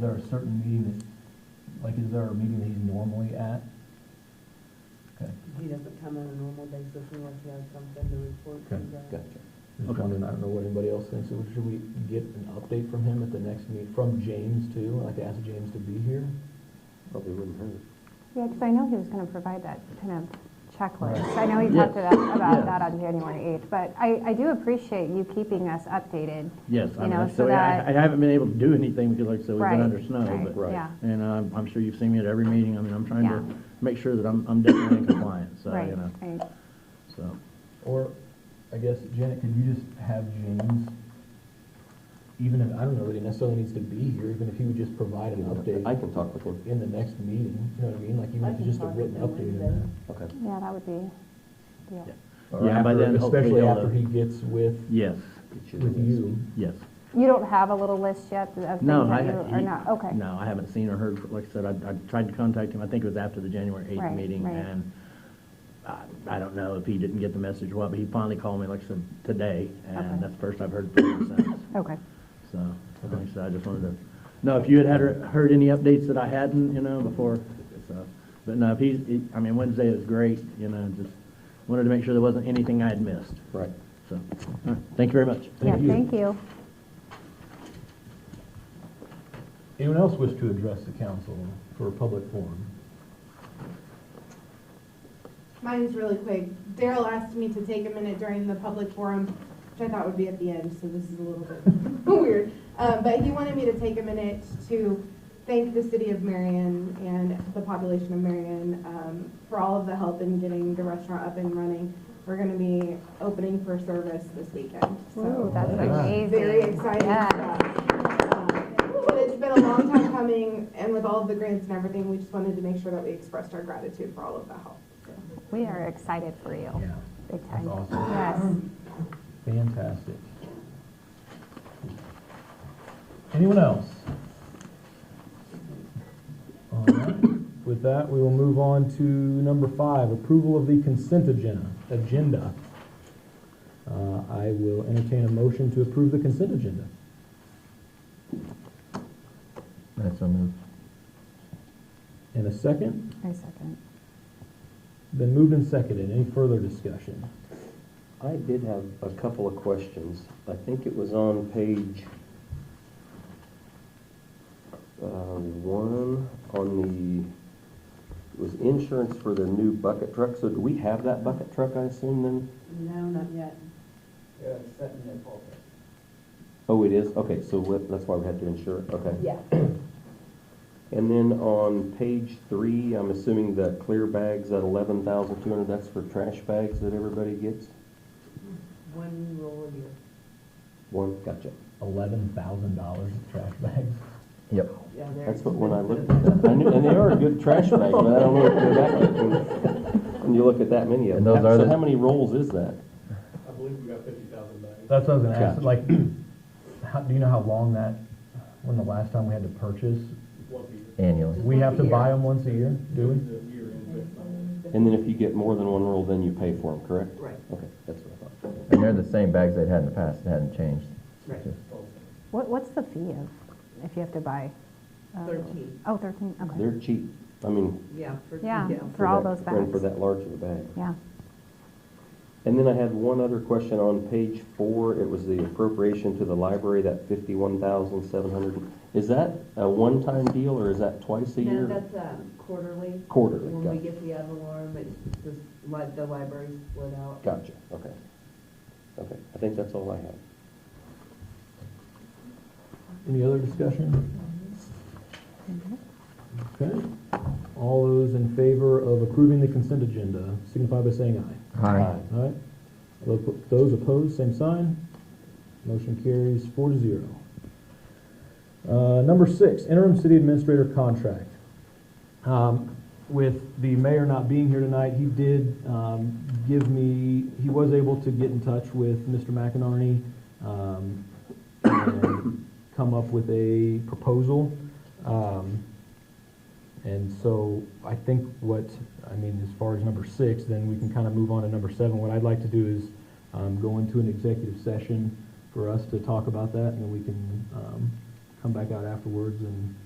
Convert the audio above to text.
there a certain meeting that, like, is there a meeting that he's normally at? Okay, He doesn't come on a normal basis unless he has something to report to Okay, you guys. Gotcha. Just Okay. wondering, I don't know what anybody else thinks, so should we get an update from him at the next meet, from James too? I'd like to ask James to be here. Probably wouldn't hurt. Yeah, because I know he was going to provide that kind of checklist. Right. I know he talked Yeah. about, about Yeah. that on January 8th, but I, I do appreciate you keeping us updated. Yes, I You know, mean, so so I, that- I haven't been able to do anything because like I said, we've Right, been under snow, right, but. Right. yeah. And um, I'm sure you've seen me at every meeting, I mean, I'm trying Yeah. to make sure that I'm, I'm definitely in compliance, so, Right, you know, right. so. Or, I guess, Janet, could you just have James, even if, I don't know that he necessarily needs to be here, even if he would just provide an update I can talk with him. in the next meeting, you know what I mean? Like, even I if it's can just a talk with written him update Wednesday. on Okay. Yeah, that would be, yeah. that. Or Yeah, by after- then, hopefully Especially he'll, after uh, he gets with, Yes, Get the with list. you. yes. You don't have a little list yet of things No, I, that you, ha- or he- not, okay. No, I haven't seen or heard, fr- like I said, I, I tried to contact him, I think it was after the January eighth Right, meeting, right. and I, I don't know if he didn't get the message or what, but he finally called me, like I said, today, Okay. and that's the first I've heard from him since. Okay, So, like I said, I just wanted to, no, if you had had, heard any updates that I hadn't, you know, before, so. But no, if he's, he- I mean, Wednesday is great, you know, just wanted to make sure there wasn't anything I had missed, Right. so. all right, Thank you very much. yeah, Thank you. thank you. Anyone else wish to address the council for a public forum? Mine's really quick. Daryl asked me to take a minute during the public forum, which I thought would be at the end, so this is a little bit weird. Uh, but he wanted me to take a minute to thank the city of Marion and the population of Marion um, for all of the help in getting the restaurant up and running. We're going to be opening for service this weekend. So Ooh, that's Nice. amazing. very excited for Yeah. that. Um, But it's been a long time coming, and with all of the grants and everything, we just wanted to make sure that we expressed our gratitude for all of the help. so. We are excited for you, Yeah, big that's time. awesome. Yes, Fantastic. Anyone else? All right. With that, we will move on to number five, approval of the consent agenda. Agenda. Uh, I will entertain a motion to approve the consent agenda. that's a move. In a second, I second. been moved and seconded. Any further discussion? I did have a couple of questions. I think it was on page uh, one on the, it was insurance for the new bucket truck. So do we have that bucket truck, I assume then? No, not yet. Oh, it is? Okay, so what- that's why we had to insure it, okay. Yeah. And then on page three, I'm assuming the clear bags at eleven thousand two hundred, that's for trash bags that everybody gets? One roll a year. One, gotcha. Eleven thousand dollars of trash bags. Yep. Yeah, they're That's what, when I looked expensive. at that, I knew, and they are a good trash bag, but I don't know if they're that good when- when you look at that many of And those them. are So the- how many rolls is that? I believe we got fifty thousand bags. That's what I was gonna ask, Gotcha. like, how, do you know how long that, when the last time we had to purchase? One year. Annually. We have to once a buy year. them once a year, do we? The year end. And then if you get more than one roll, then you pay for them, correct? Right, Okay, that's what I thought. And they're the same bags they'd had in the past, it hadn't changed. right, What, what's the fee of, if you have to buy? uh, thirteen, Oh, 13, okay. They're cheap, I mean. yeah. for- Yeah. For for all that- those and For bags. that large of a bag. Yeah. And then I had one other question on page four, it was the appropriation to the library, that fifty-one thousand seven hundred. Is that a one-time deal, or is that twice a No, year? that's um, quarterly. Quarterly, When we gotcha, get the alarm, it's just like the library split out. gotcha, okay. Okay, I think that's all I have. Any other discussion? Okay, all those in favor of approving the consent agenda signify by saying aye. Hi. All right, Tho- those opposed, same sign. Motion carries four to zero. Uh, Number six, interim city administrator contract. Um, With the mayor not being here tonight, he did um, give me, he was able to get in touch with Mr. McInerney um, and come up with a proposal. Um, and so I think what, I mean, as far as number six, then we can kind of move on to number seven. What I'd like to do is um, go into an executive session for us to talk about that, and then we can um, come back out afterwards and